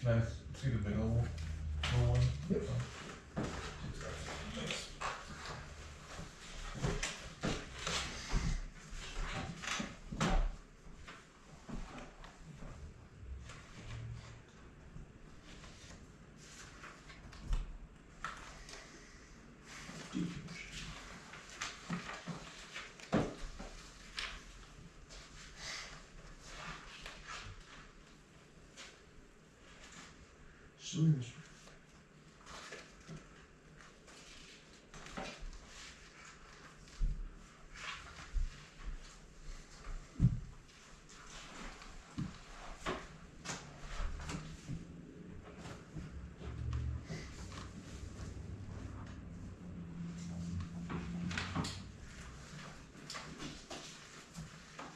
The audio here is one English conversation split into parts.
Can I see the big old, little one? Oh. Yep. So there's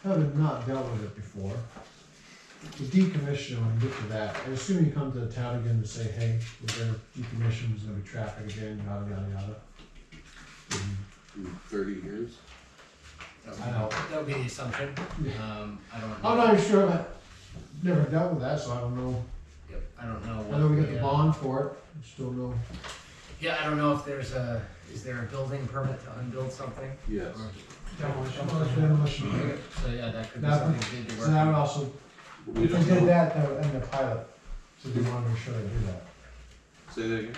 having not dealt with it before, the decommission, when you get to that, I assume you come to the town again to say, hey, we're gonna decommission, there's gonna be traffic again, yada, yada, yada. And in thirty years. I know, That would be the assumption. Yeah. Oh, Um, I don't. I'm not even sure, I've never dealt with that, so I don't know, Yep, I don't know. I know we got the uh, bond for it, still no, Yeah, I don't know if there's a, is there a building permit to unbuild something? Yes. Or- I thought it's demolition. So yeah, that could be That- something we did to So that would work. also, We if we don't did know. that, that would end the pilot, so they wanna make sure they do that. Say that again.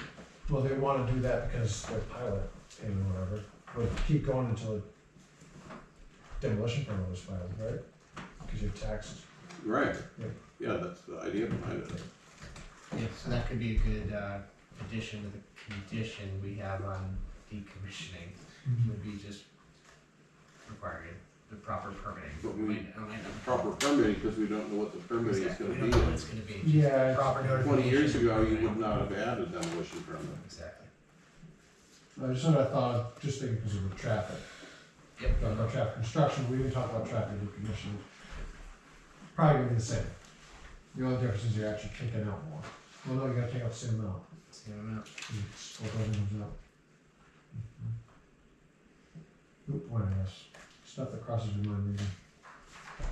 Well, they wanna do that because their pilot payment or whatever, would keep going until demolition permit was filed, right? Cause you have taxes. Right. Yeah. Yeah, that's the idea behind it. Yeah, so that could be a good, uh, addition to the condition we have on decommissioning, Mm-hmm. would be just requiring the proper permitting. But we- Might- I might not- Proper permitting, because we don't know what the permitting is Exactly, we gonna don't know what be. it's gonna be. Just Yeah. Proper notification. Twenty years ago, you permitting. would not have had a demolition permit. Exactly. I just sort of thought, of just thinking because of the traffic, Yep. talking about traffic construction, we didn't talk about traffic decommission. Probably gonna be the same. The only difference is you're actually taking out more. Well, no, you gotta take out the same amount. Same amount. You split everything up. Mm-hmm. Good point, I guess. Stuff that crosses your mind, maybe.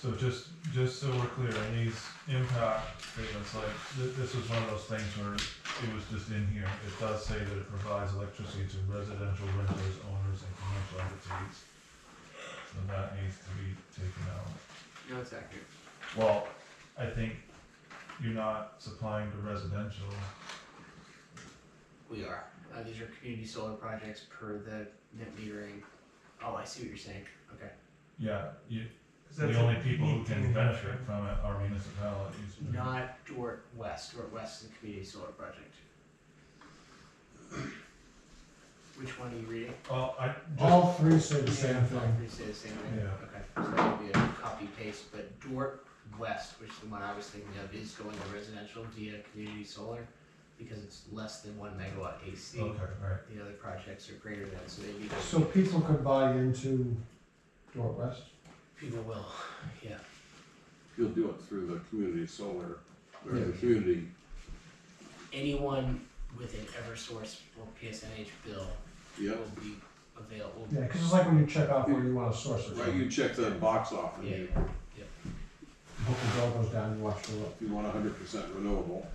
So just, just so we're clear, in these impact statements, like, th- this was one of those things where it was just in here. It does say that it provides electricity to residential renters, owners, and commercial entities. So that needs to be taken out. No, it's accurate. Well, I think you're not supplying to residential. We are. Uh, these are community solar projects per the net metering. Oh, I see what you're saying. Okay. Yeah, you, that's the only a people who neat can thing. benefit from it are municipalities. Mm-hmm. Not Dort West. Dort West is a community solar project. Which one are you reading? Well, I just, All three say the same Yeah, thing. You say the same thing? Yeah. Okay, so that would be a copy paste, but Dort West, which is the one I was thinking of, is going to residential via community solar because it's less than one megawatt AC. okay, right. The other projects are greater than, so maybe So people could buy into Dort West? people will, yeah. You'll do it through the community solar, or the Yeah. community, anyone with an Eversource or PSNH bill yep. will be available. Yeah, because it's like when you check off where you want to source it. Right, you check that box off, and Yeah, you- yeah. Hope the bill goes down, you watch the look. if you want hundred percent renewable,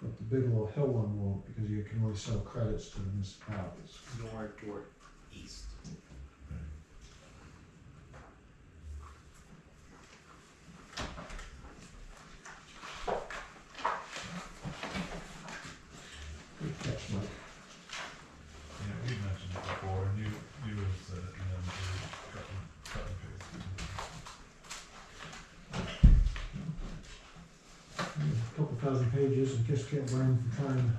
But the big little hill one won't, because you can only sell credits to the municipalities. nor Dort East. Good catch, Mike. Yeah, we mentioned it before, and you, you had said it, and then you cut and, cut and paste. A Couple thousand pages and just can't burn from trying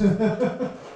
to make it easy, man.